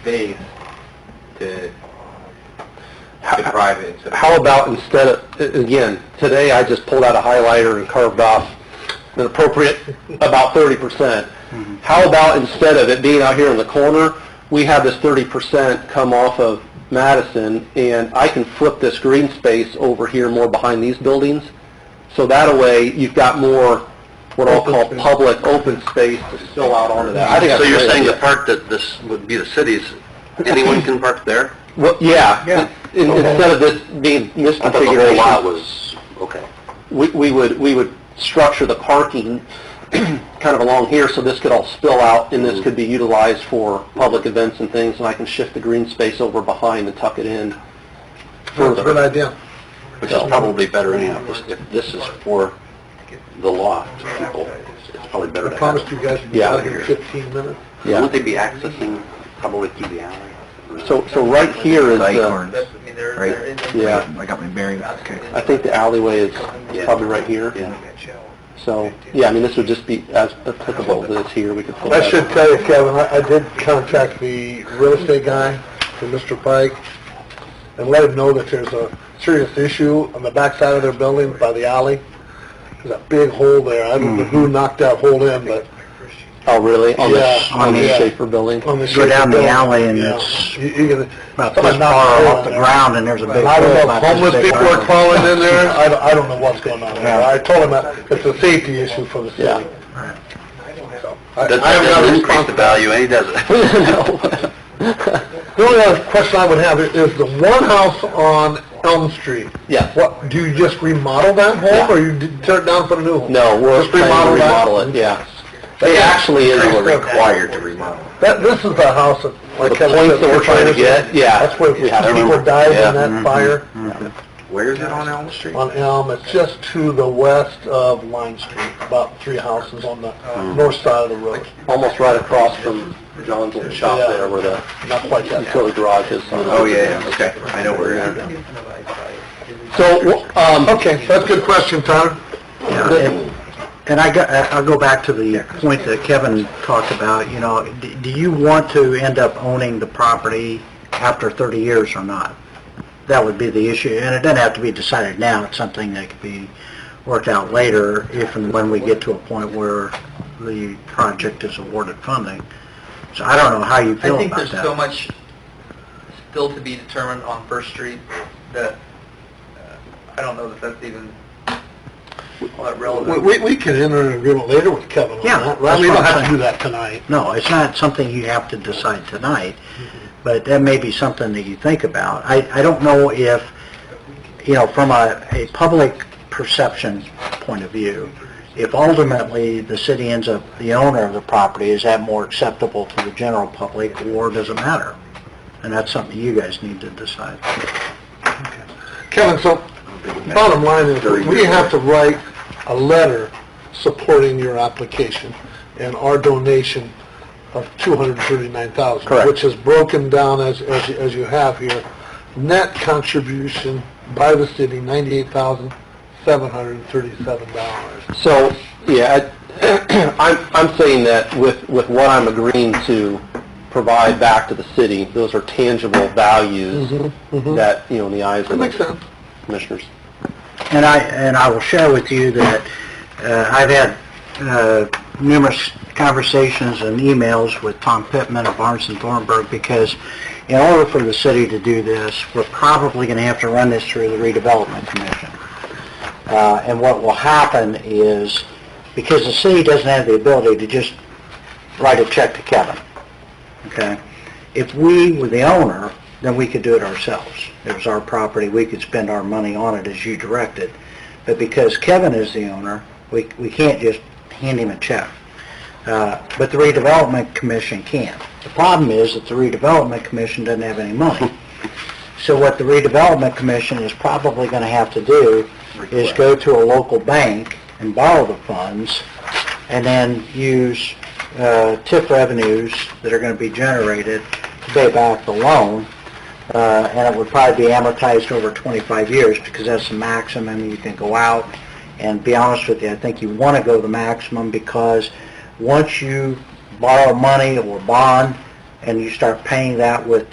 space to, to private. so- How about instead of, a- again, today I just pulled out a highlighter and carved off an appropriate about thirty percent. How about instead of it being out here in the corner, we have this thirty percent come off of Madison and I can flip this green space over here more behind these buildings? So that way you've got more what I'll call public open space to spill out onto that. I think that's So a you're great saying the idea. part that this would be the city's, anyone can park there? Well, yeah, Yeah. In- instead of this being I thought the whole lot misconfiguration, was, okay. we, we would, we would structure the parking kind of along here, so this could all spill out, and Mm. this could be utilized for public events and things, and I can shift the green space over behind and tuck it in That's a good further. idea. Which is probably better anyhow, This- if this is for the loft people, it's probably better I to have. promised it. you guys we'd be Yeah. out here in 15 minutes. Wouldn't Yeah, they be accessing probably through the alley? so, so right here is the, That's, I mean, they're, Right. they're in there. yeah, uh, I got my bearings, I think the alleyway is probably right here, Yeah. so, yeah, I mean, this would just be as applicable to this here, we could pull that. I should tell you, Kevin, I, I did contact the real estate guy for Mr. Pike and let him know that there's a serious issue on the backside of their building by the alley. There's a big hole there. I don't know who Mm-hmm. knocked that hole in, but Oh, really? On the, Yeah. Oh, on the Yeah. Schaefer building? on the Go down the shape of alley and building, it's yeah, You, you can. about this far off the ground, and there's a big... I don't hole know about if this homeless big. people are crawling in there. I don't, I don't know what's going on there. I told him that it's a safety issue for the Yeah. city. So, I- That I haven't got a doesn't increase the response. value any, does it? No. The only other question I would have is is the one house on Elm Street. Yes. What, do you just remodel that home, or you d- tear it down for the new home? No, we're Just planning to remodel that? remodel it, yeah. It actually is Required to remodel. That, this is the house that, like The Kevin points said, that we're trying to fires- get, yeah. That's where Yeah, I people remember. died Yeah. Mm-hmm. in that fire Where is it on Elm Street? on Elm. It's just to the west of Line Street, about three houses on the Mm-hmm. north side of the road. almost right across from John's little shop Yeah. there where the Not quite that far. utility garage is. Oh, yeah, yeah, okay, I know where it is. So, wh- um, Okay, that's a good question, Tyler. And- And I go, I- I'll go back to the point that Kevin talked about, you know, d- do you want to end up owning the property after 30 years or not? That would be the issue, and it doesn't have to be decided now, it's something that could be worked out later if and when we get to a point where the project is awarded funding. So I don't know how you I feel think about there's so that. much still to be determined on First Street that, uh, I don't know that that's even all that We- relevant. We, we can enter an agreement later with Kevin on Yeah, that, right? that's We what don't I'm have to saying. do that tonight. No, it's not something you have to decide tonight, but that may be something that you think about. I, I don't know if, you know, from a, a public perception point of view, if ultimately the city ends up the owner of the property, is that more acceptable to the general public, or does it matter? And that's something you guys need to decide. Kevin, so bottom line is, we have to write a letter supporting your application and our donation of $239,000. Correct. Which is broken down as, as you- as you have here, net contribution by the city, $98,737. So, yeah, I- I'm, I'm saying that with, with what I'm agreeing to provide back to the city, those are tangible values that, you know, in the eyes of Mm-hmm, Makes the sense. commissioners. And I, and I will share with you that uh, I've had uh, numerous conversations and emails with Tom Pittman of Barnes and Thornburg because in order for the city to do this, we're probably going to have to run this through the redevelopment commission. Uh, And what will happen is, because the city doesn't have the ability to just write a check to Kevin, okay? If we were the owner, then we could do it ourselves. It was our property, we could spend our money on it as you directed. But because Kevin is the owner, we, we can't just hand him a check. Uh, But the redevelopment commission can. The problem is that the redevelopment commission doesn't have any money. So what the redevelopment commission is probably going to have to do is go to a local bank and borrow the funds and then use uh, TIF revenues that are going to be generated to pay back the loan. Uh, And it would probably be amortized over 25 years because that's the maximum you can go out. And be honest with you, I think you want to go the maximum because once you borrow money or bond, and you start paying that with